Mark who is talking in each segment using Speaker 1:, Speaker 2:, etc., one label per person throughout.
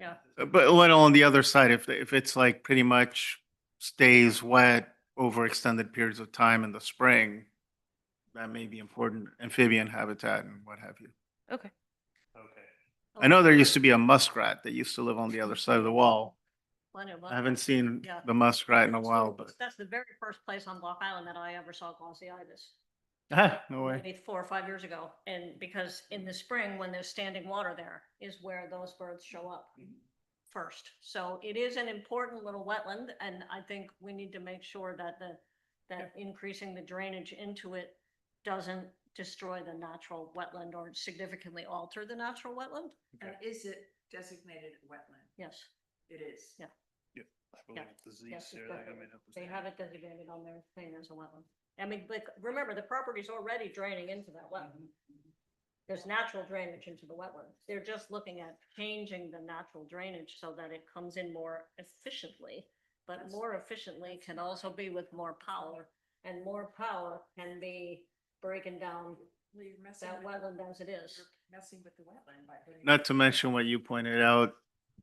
Speaker 1: Yeah.
Speaker 2: Uh, But let on the other side, if, if it's like pretty much stays wet over extended periods of time in the spring, that may be important amphibian habitat and what have you.
Speaker 1: Okay.
Speaker 2: Okay. I know there used to be a muskrat that used to live on the other side of the wall.
Speaker 1: Oh, Plenty of
Speaker 2: I haven't seen
Speaker 1: Yeah.
Speaker 2: the muskrat in a
Speaker 1: That's
Speaker 2: while,
Speaker 1: the-
Speaker 2: but,
Speaker 1: That's the very first place on Block Island that I ever saw glossitis.
Speaker 2: ah, no way.
Speaker 1: Maybe four or five years ago. And because in the spring, when there's standing water there, is where those birds show up first. So it is an important little wetland, and I think we need to make sure that the, that increasing the drainage into it doesn't destroy the natural wetland or significantly alter the natural wetland.
Speaker 3: And is it designated wetland?
Speaker 1: Yes,
Speaker 3: It is.
Speaker 1: Yeah. believe
Speaker 2: The Z's
Speaker 1: yes, there, they exactly. have they have it designated on their thing as a wetland. I mean, like, remember, the property's already draining into that wetland. there's natural drainage into the wetlands. They're just looking at changing the natural drainage so that it comes in more efficiently. But
Speaker 3: That's-
Speaker 1: more efficiently can also be with more power, and more power can be breaking down
Speaker 3: Well, you're messing
Speaker 1: that
Speaker 3: with the-
Speaker 1: wetland as it is.
Speaker 3: you're Messing with the wetland by putting.
Speaker 2: Not to mention what you pointed out,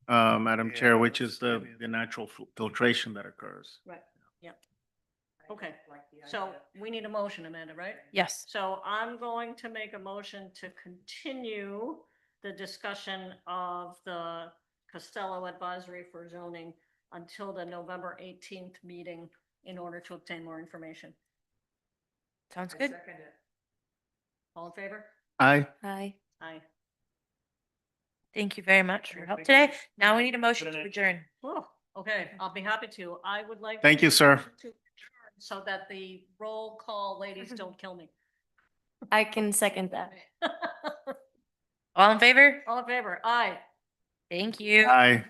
Speaker 2: uh, Madam
Speaker 4: Yeah,
Speaker 2: Chair, which
Speaker 4: that's
Speaker 2: is the,
Speaker 4: maybe-
Speaker 2: the natural fil- filtration that occurs.
Speaker 3: I don't
Speaker 1: okay.
Speaker 3: like the
Speaker 1: So
Speaker 3: idea.
Speaker 1: we need a motion, Amanda, right?
Speaker 5: Yes.
Speaker 1: So I'm going to make a motion to continue the discussion of the Costello advisory for zoning until the November eighteenth meeting in order to obtain more information.
Speaker 5: Sounds
Speaker 3: I
Speaker 5: good.
Speaker 3: second it.
Speaker 1: All in favor?
Speaker 2: Aye.
Speaker 5: Hi.
Speaker 1: Aye.
Speaker 5: Thank you very much for your
Speaker 4: Sure,
Speaker 5: help
Speaker 4: thank you.
Speaker 5: today. Now we need a motion
Speaker 4: Good
Speaker 5: to
Speaker 4: night.
Speaker 5: adjourn.
Speaker 1: Whoa, okay, I'll be happy to. I would like.
Speaker 2: Thank you, sir.
Speaker 1: to adjourn So that the roll call ladies don't kill me.
Speaker 6: I can second that.
Speaker 5: All in favor?
Speaker 1: All in favor? Aye.
Speaker 5: Thank you.
Speaker 2: Aye.